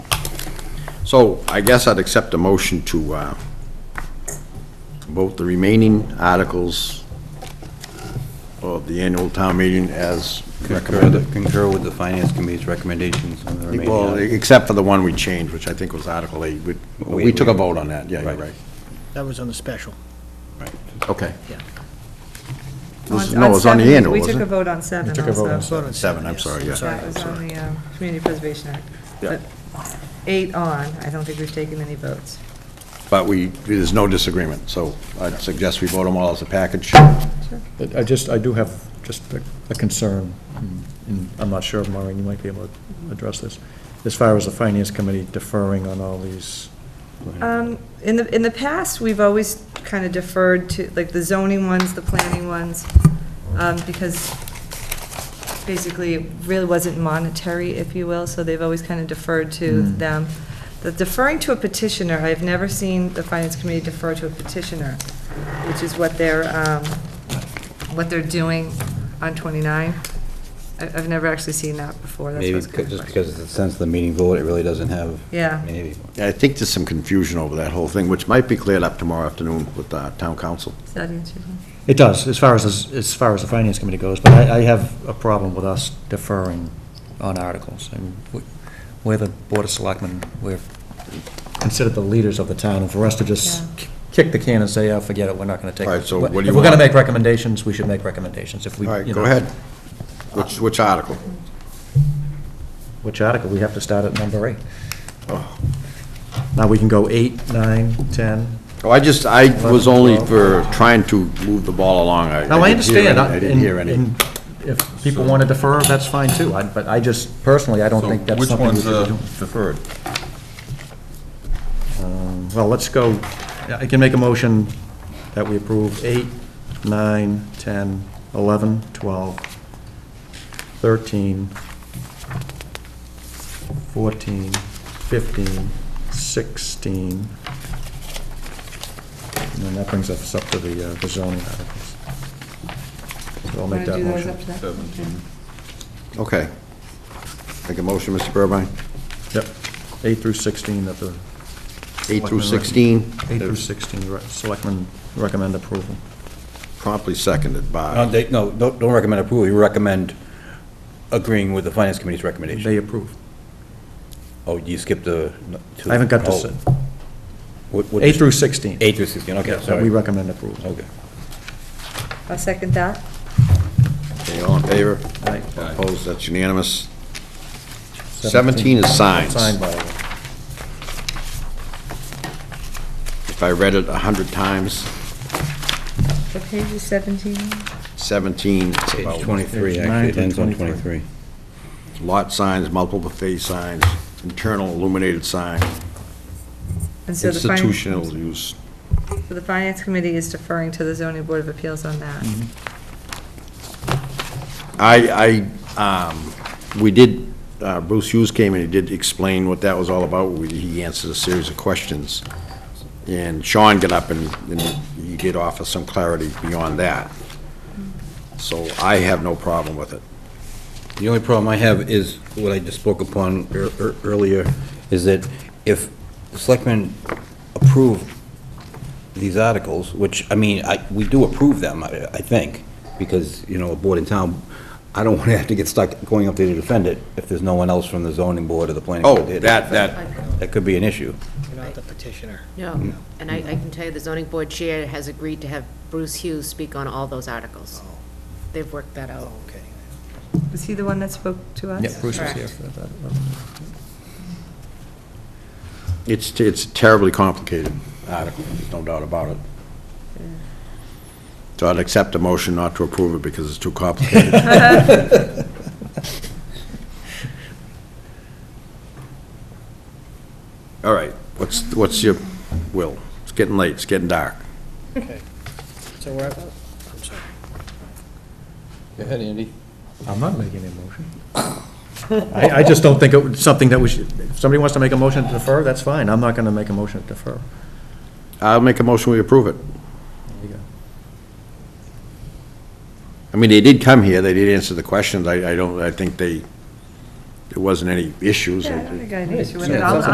So I guess I'd accept a motion to uh, vote the remaining articles of the annual town meeting as Concur, recommended. the- concur with the finance committee's recommendations on the remaining. Well, articles. except for the one we changed, which I think was Article 8. We- We- We took a vote on that, yeah, you're Right. right. That was on the special, Okay. yeah. This- No, it was on the seven, annual, We took wasn't a it? vote on seven took a vote on also. Vote on Seven, I'm sorry, yeah. yes. That was on the um, Community Preservation Act. Yeah. But Eight on, I don't think we've taken any votes. But we, there's no disagreement, so I'd suggest we vote them all as a package. But I just, I do have just a- a concern, and I'm not sure, Maureen, you might be able to address this, as far as the finance committee deferring on all these. Um, In the, in the past, we've always kind of deferred to, like, the zoning ones, the planning ones, um, because basically it really wasn't monetary, if you will, so they've always kind of deferred to Hmm. them. The deferring to a petitioner, I've never seen the finance committee defer to a petitioner, which is what they're, um, what they're doing on 29. I- I've never actually seen that before, that's Maybe what's kind because- of just question. because it's since the meeting vote, it really doesn't have. Yeah. Maybe. Yeah, I think there's some confusion over that whole thing, which might be cleared up tomorrow afternoon with uh, town council. Does that answer your question? It does, as far as, as far as the finance committee goes, but I, I have a problem with us deferring on articles. I mean, we- We're the Board of Selectmen, we're considered the leaders of the town, and for us to just Yeah. kick the can and say, oh, forget it, we're not gonna take. All right, so what do you If we're gonna want? make recommendations, we should make recommendations, if we. All right, you go know- ahead. Which, which article? Which article? We have to start at number eight. Now, we can go eight, nine, 10. Oh, I just, I was only for trying to move the ball along. Now, I didn't hear understand. any- I didn't and- hear any. and If people want to defer, that's fine too, I- but I just, personally, I don't think that's something we should be doing. deferred? Um, Well, let's go, I can make a motion that we approve eight, nine, 10, 11, 12, 13, 14, 15, 16. And then that brings us up to the uh, the zoning articles. So I'll Wanna make that do those motion. up to that? Okay. Make a motion, Mr. Burbine? Yep, eight through 16 that the. Eight through selectmen recommend- 16? Eight through 16, re- selectmen recommend approval. Promptly seconded Uh, by, No, they, no, don't, don't recommend approval, you recommend agreeing with the finance committee's recommendation. They approve. Oh, you skipped the. to- I haven't got oh, this, what- what- eight through 16. Eight through sixteen, okay, that we sorry. recommend approval. Okay. I'll second that. okay, all in favor? Aye. Opposed, that's unanimous. 17 is signs. Signed by, the- If I read it 100 times, What page is 17? 17, it's Page about twenty-three, Page nine actually, it through ends on 23. twenty-three. lot signs, multiple phase signs, internal illuminated sign, And so the fin- institutional use. So the Finance Committee is deferring to the Zoning Board of Appeals on that. Mm-hmm. I, I, um, we did, uh, Bruce Hughes came and he did explain what that was all about. We- He answered a series of questions. And Sean got up and, and he did offer some clarity beyond that. So I have no problem with it. The only problem I have is what I just spoke upon ear- ear- earlier, is that if the selectmen approve these articles, which, I mean, I, we do approve them, I, I think, because, you know, a board in town, I don't want to have to get stuck going up there to defend it if there's no one else from the zoning board or the planning. Oh, board there to that, defend that, it. That could be an issue. You're not the petitioner. No, and I, I can tell you, the zoning board chair has agreed to have Bruce Hughes speak on all those articles. They've worked that out. Oh, okay. Was he the one that spoke to us? yeah, Bruce was here Correct. for that. it's, it's terribly complicated article, there's no doubt about it. So I'd accept a motion not to approve it because it's too complicated. All right, what's, what's your will? It's getting late, it's getting dark. Okay. So we're, I'm sorry. I'm not making a motion. I, I just don't think it was something that we should, if somebody wants to make a motion to defer, that's fine, I'm not going to make a motion to defer. I'll make a motion, we approve it. There you go. I mean, they did come here, they did answer the questions, I, I don't, I think they, there wasn't any issues. Yeah, I don't think I had an issue with Yeah, it. it I'll- sounds like